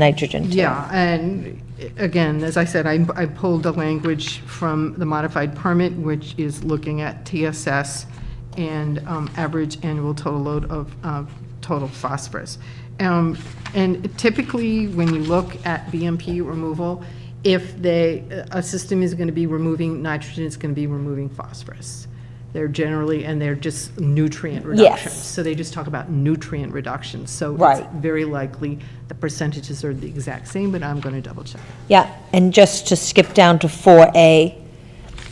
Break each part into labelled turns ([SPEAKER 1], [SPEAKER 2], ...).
[SPEAKER 1] nitrogen. too.
[SPEAKER 2] Yeah, and again, as I said, I I pulled the language from the modified permit, which is looking at TSS and um, average annual total load of uh, total phosphorus. Um, And typically, when you look at BMP removal, if they, a system is going to be removing nitrogen, it's going to be removing phosphorus. They're generally, and they're just nutrient reductions. So they just talk about nutrient reductions. So it's
[SPEAKER 1] Right.
[SPEAKER 2] very likely the percentages are the exact same, but I'm going to double check.
[SPEAKER 1] Yeah, and just to skip down to 4A,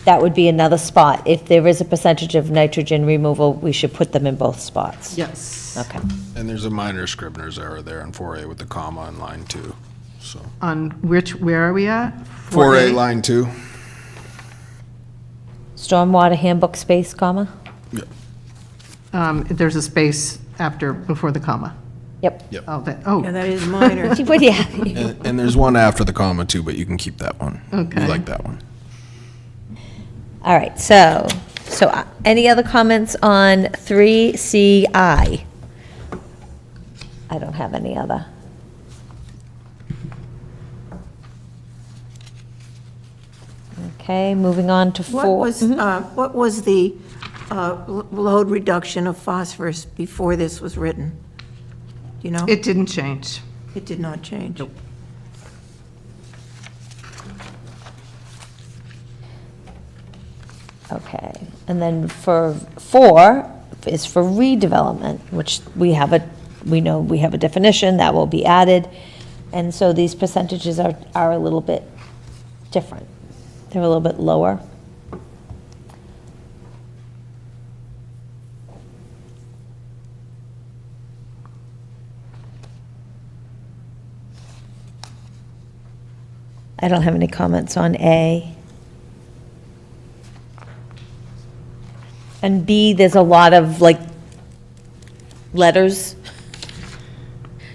[SPEAKER 1] that would be another spot. If there is a percentage of nitrogen removal, we should put them in both spots.
[SPEAKER 2] Yes,
[SPEAKER 1] Okay.
[SPEAKER 3] And there's a minor Scribner's error there in 4A with the comma in line two, so.
[SPEAKER 2] on which, where are we at?
[SPEAKER 3] 4A line two?
[SPEAKER 1] Stormwater handbook space, comma?
[SPEAKER 2] Um, There's a space after, before the comma.
[SPEAKER 1] Yep.
[SPEAKER 2] Oh, that, oh,
[SPEAKER 4] Yeah, that is minor.
[SPEAKER 1] She would, yeah.
[SPEAKER 3] And, and there's one after the comma too, but you can keep that one.
[SPEAKER 2] Okay.
[SPEAKER 3] We like that one.
[SPEAKER 1] All right, so, so uh, any other comments on 3CI? I don't have any other. Okay, moving on to 4.
[SPEAKER 4] What was, uh, what was the uh, lo- load reduction of phosphorus before this was written? Do you know?
[SPEAKER 2] it didn't change.
[SPEAKER 4] It did not change.
[SPEAKER 1] Okay, and then for four is for redevelopment, which we have a, we know we have a definition that will be added. And so these percentages are, are a little bit different. They're a little bit lower. I don't have any comments on A. And B, there's a lot of like letters.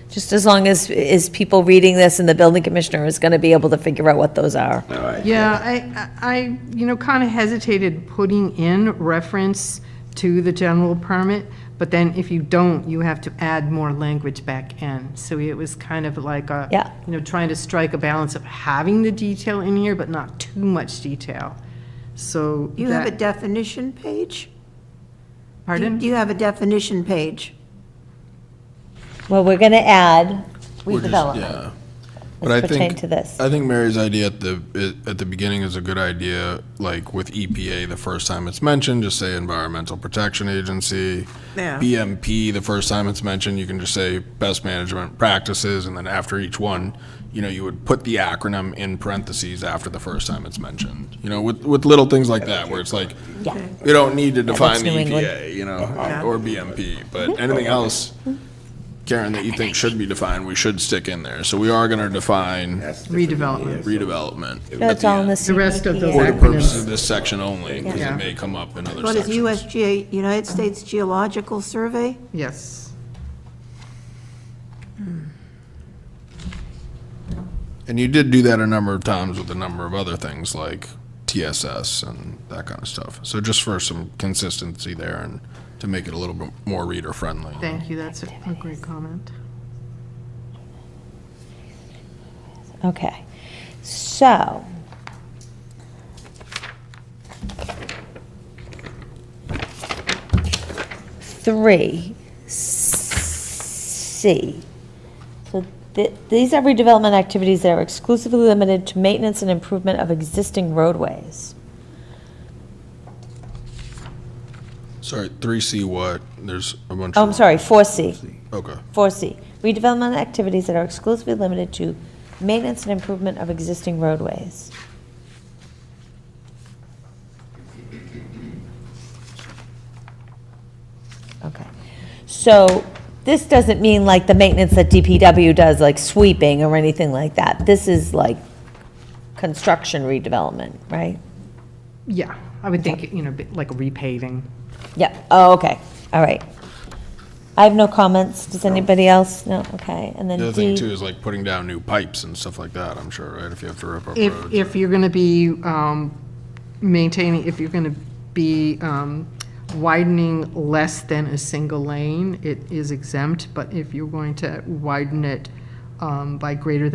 [SPEAKER 1] Just as long as, is people reading this and the building commissioner is going to be able to figure out what those are.
[SPEAKER 2] Yeah, I, I, I, you know, kind of hesitated putting in reference to the general permit, but then if you don't, you have to add more language back in. So it was kind of like a,
[SPEAKER 1] Yeah.
[SPEAKER 2] you know, trying to strike a balance of having the detail in here, but not too much detail. So
[SPEAKER 4] You have a
[SPEAKER 2] that,
[SPEAKER 4] definition page? Do-
[SPEAKER 2] pardon?
[SPEAKER 4] Do you have a definition page?
[SPEAKER 1] Well, we're going to add
[SPEAKER 3] We're just-
[SPEAKER 1] redevelopment
[SPEAKER 3] Yeah. But I
[SPEAKER 1] as pertain
[SPEAKER 3] think,
[SPEAKER 1] to this.
[SPEAKER 3] I think Mary's idea at the, i- at the beginning is a good idea, like with EPA, the first time it's mentioned, just say Environmental Protection Agency.
[SPEAKER 4] Yeah.
[SPEAKER 3] BMP, the first time it's mentioned, you can just say best management practices, and then after each one, you know, you would put the acronym in parentheses after the first time it's mentioned. You know, with, with little things like that, where it's like,
[SPEAKER 1] Yeah.
[SPEAKER 3] we don't need to define the
[SPEAKER 1] New England.
[SPEAKER 3] EPA, E you know, or BMP, but anything else, Karen, that you think should be defined, we should stick in there. So we are gonna define
[SPEAKER 2] Redevelopment.
[SPEAKER 3] redevelopment. at
[SPEAKER 1] No, it's
[SPEAKER 3] the
[SPEAKER 1] all in
[SPEAKER 3] end,
[SPEAKER 1] the
[SPEAKER 2] The rest of those
[SPEAKER 3] For the
[SPEAKER 1] CPA.
[SPEAKER 3] purpose of this section only, because
[SPEAKER 2] Yeah.
[SPEAKER 3] it may come up in other
[SPEAKER 4] What is
[SPEAKER 3] sections.
[SPEAKER 4] USGA, United States Geological Survey?
[SPEAKER 2] Yes.
[SPEAKER 3] And you did do that a number of times with a number of other things like TSS and that kind of stuff. So just for some consistency there and to make it a little bit more reader friendly.
[SPEAKER 2] Thank you, that's a a great comment.
[SPEAKER 1] Okay, so. Three, C. So th- these are redevelopment activities that are exclusively limited to maintenance and improvement of existing roadways.
[SPEAKER 3] Sorry, three C what? There's a bunch.
[SPEAKER 1] Oh,
[SPEAKER 3] of-
[SPEAKER 1] I'm sorry, four C.
[SPEAKER 3] Okay.
[SPEAKER 1] 4C, redevelopment activities that are exclusively limited to maintenance and improvement of existing roadways. Okay, so this doesn't mean like the maintenance that DPW does, like sweeping or anything like that. This is like construction redevelopment, right?
[SPEAKER 2] Yeah, I would think, you know, bit like a repaving.
[SPEAKER 1] Yep, oh, okay, all right. I have no comments, does anybody else? No, okay, and then
[SPEAKER 3] The
[SPEAKER 1] D.
[SPEAKER 3] other thing too is like putting down new pipes and stuff like that, I'm sure, right? If you have to rip up
[SPEAKER 2] If,
[SPEAKER 3] roads.
[SPEAKER 2] if you're going to be um, maintaining, if you're going to be um, widening less than a single lane, it is exempt, but if you're going to widen it um, by greater than